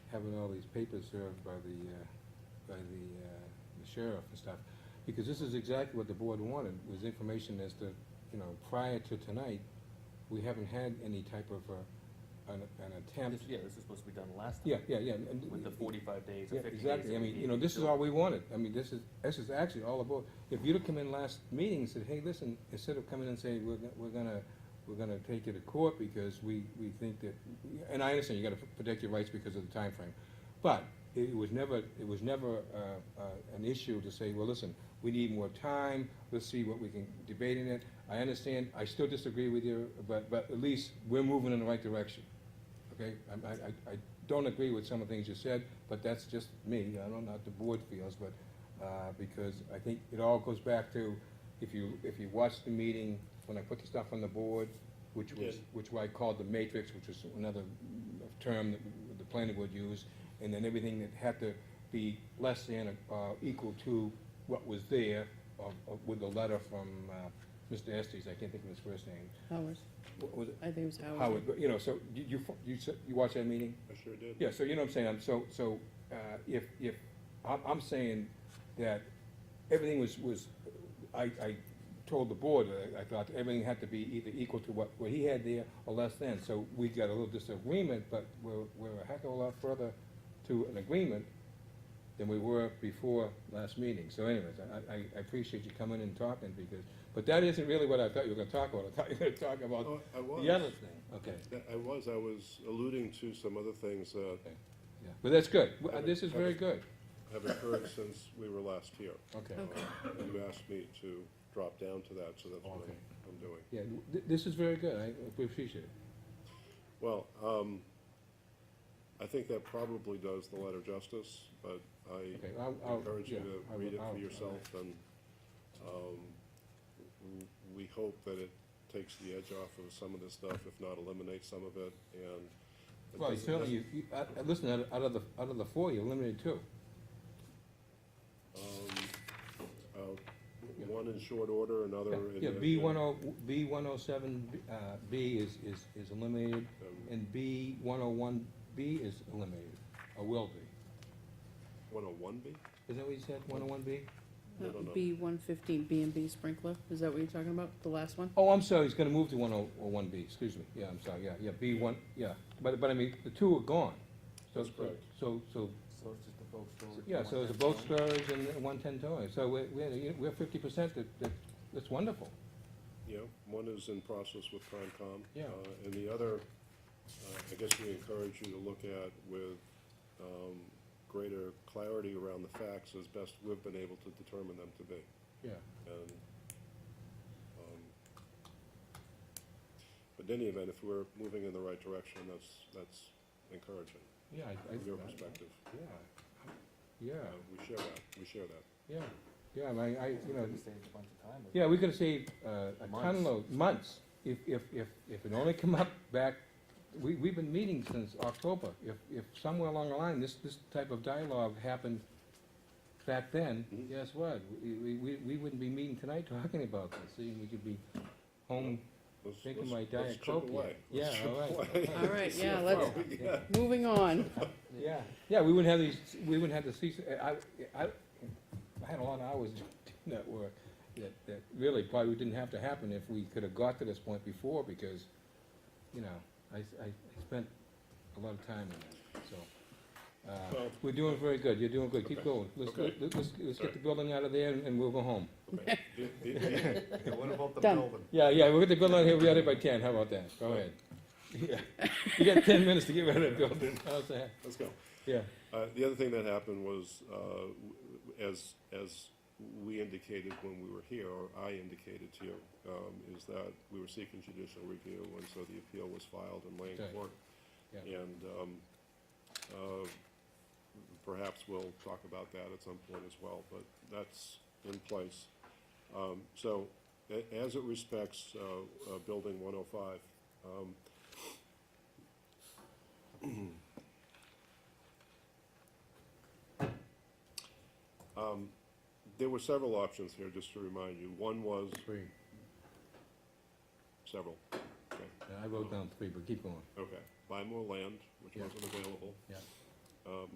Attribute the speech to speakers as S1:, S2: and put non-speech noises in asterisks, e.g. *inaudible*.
S1: having all these papers served by the, uh, by the uh, the sheriff and stuff, because this is exactly what the board wanted, was information as to, you know, prior to tonight, we haven't had any type of uh, an an attempt.
S2: This- Yeah, this was supposed to be done last
S1: Yeah,
S2: time,
S1: yeah, yeah. and-
S2: with the forty-five days or
S1: Yeah,
S2: fifty days.
S1: exactly,
S2: that
S1: I
S2: we
S1: mean, you
S2: gave
S1: know, this is
S2: to-
S1: all we wanted, I mean, this is, this is actually all about, if you'd have come in last meeting and said, hey, listen, instead of coming and saying, we're, go- we're gonna, we're gonna take you to court because we, we think that, and I understand, you gotta protect your rights because of the time frame, but it was never, it was never, uh, uh, an issue to say, well, listen, we need more time, let's see what we can debate in it, I understand, I still disagree with you, but, but at least we're moving in the right direction. Okay, I, I, I- I don't agree with some of the things you said, but that's just me, I don't know how the board feels, but, uh, because I think it all goes back to, if you, if you watch the meeting, when I put the stuff on the board, which
S3: You
S1: was,
S3: did.
S1: which I called the matrix, which was another term that the planning would use, and then everything that had to be less than, uh, equal to what was there, of, of, with the letter from, uh, Mr. Estes, I can't think of his first name,
S4: Howard,
S1: what was it?
S4: I think it was Howard.
S1: Howard, but, you know, so, you, you, fo- you, s- you watch that meeting?
S3: I sure did.
S1: Yeah, so you know what I'm saying, I'm so, so, uh, if, if, I'm, I'm saying that everything was, was, I, I told the board, that I I thought everything had to be either equal to what, what he had there or less than, so we got a little disagreement, but we're, we're a heck of a lot further to an agreement than we were before last meeting, so anyways, I, I, I appreciate you coming and talking, because, but that isn't really what I thought you were gonna talk about, I thought you were gonna talk about
S3: Oh, I was.
S1: the other thing, okay.
S3: That- I was, I was alluding to some other things that
S1: Yeah, But that's good, W- uh, this is very good, *laughs*
S3: have occurred since we were last here. Uh,
S1: okay.
S4: Okay,
S3: You asked me to drop down to that, so that's what
S1: Okay.
S3: I'm- I'm doing.
S1: Yeah, th- this is very good, I appreciate it.
S3: Well, um, I think that probably does the letter justice, but I
S1: Okay, I'll, I'll.
S3: encourage you
S1: yeah,
S3: to
S1: I
S3: read
S1: will-
S3: it
S1: I'll-
S3: for yourself, and um, w- we hope that it takes the edge off of some of this stuff, if not eliminates some of it, and. it
S1: Well, you
S3: doesn't-
S1: certainly, you, you, uh, uh, listen, out out of the, out of the four, you eliminated two.
S3: um, uh, One in short order, another in.
S1: Yeah,
S3: the-
S1: B one oh, B one oh seven, uh, B is, is, is eliminated,
S3: um,
S1: and B one oh one, B is eliminated, or will be.
S3: 101 B?
S1: Is that what you said, one oh one B?
S3: No, no, no.
S4: B one fifteen, B and B sprinkler, is that what you're talking about, the
S1: *laughs*
S4: last one?
S1: Oh, I'm sorry, he's gonna move to one oh, or one B, excuse me, yeah, I'm sorry, yeah, yeah, B one, yeah, but, but I mean, the two are gone. So-
S3: That's correct.
S1: So, so
S2: So it's just a boat storage.
S1: Yeah, so it's a boat storage and one-ten towing, so we're, we're, we're fifty percent, that, that, that's wonderful.
S3: Yeah, one is in process with Concom.
S1: Yeah.
S3: uh, And the other, uh, I guess we encourage you to look at with um, greater clarity around the facts as best we've been able to determine them to be.
S1: Yeah.
S3: And, um, but in any event, if we're moving in the right direction, that's, that's encouraging
S1: Yeah, I, I.
S3: from your perspective.
S1: Yeah. Yeah,
S3: Uh, We share that, we share that.
S1: yeah, yeah, I, I, you know,
S2: We saved a bunch of time.
S1: yeah, we could have saved, uh, a
S2: Months.
S1: ton load, months, if, if, if, if it only come up back, we, we've been meeting since October. If, if somewhere along the line, this, this type of dialogue happened back then,
S3: Mhm.
S1: guess what? We, we- we, we wouldn't be meeting tonight talking about this, See, we could be home
S3: Let's-
S1: drinking
S3: let's-
S1: my
S3: let's
S1: diet
S3: chip
S1: coke.
S3: away.
S1: Yeah,
S3: Let's chip
S1: *laughs*
S3: *laughs*
S1: all right.
S3: away.
S4: All right, yeah,
S3: See
S4: let's,
S3: what we
S1: Yeah.
S3: got.
S4: moving on,
S1: Yeah, yeah, we wouldn't have these, we wouldn't have the cease, I, I, I had a lot of hours *laughs* doing that work that, that really probably didn't have to happen if we could have got to this point before, because, you know, I, I spent a lot of time in that, so. Uh,
S3: Well-
S1: we're doing very good, you're doing good, keep
S3: Okay.
S1: going, let's,
S3: Okay.
S1: let's, let's- let's get
S3: Sorry.
S1: the building out of there and and we'll go home.
S3: Okay. The- the- the-
S2: What about the
S4: Done.
S1: Yeah, yeah, we'll get the building out of here, we got it by ten, how about that, go ahead. Yeah, you got ten minutes to get rid of the *laughs* building, how's that,
S3: Let's go.
S1: yeah.
S3: Uh, The other thing that happened was, uh, w- w- as, as we indicated when we were here, or I indicated to you, um, is that we were seeking judicial review, and so the appeal was filed in Lane
S1: Right.
S3: Court.
S1: Yeah.
S3: And um, uh, perhaps we'll talk about that at some point as well, but that's in place. Um, So a- as it respects uh, uh, Building 105, um, *clears throat* um, there were several options here, just to remind you. One was,
S1: Three.
S3: several, okay,
S1: Yeah, I wrote down three, but keep going.
S3: okay, buy more land, which
S1: Yeah.
S3: wasn't available. Um,
S1: Yeah.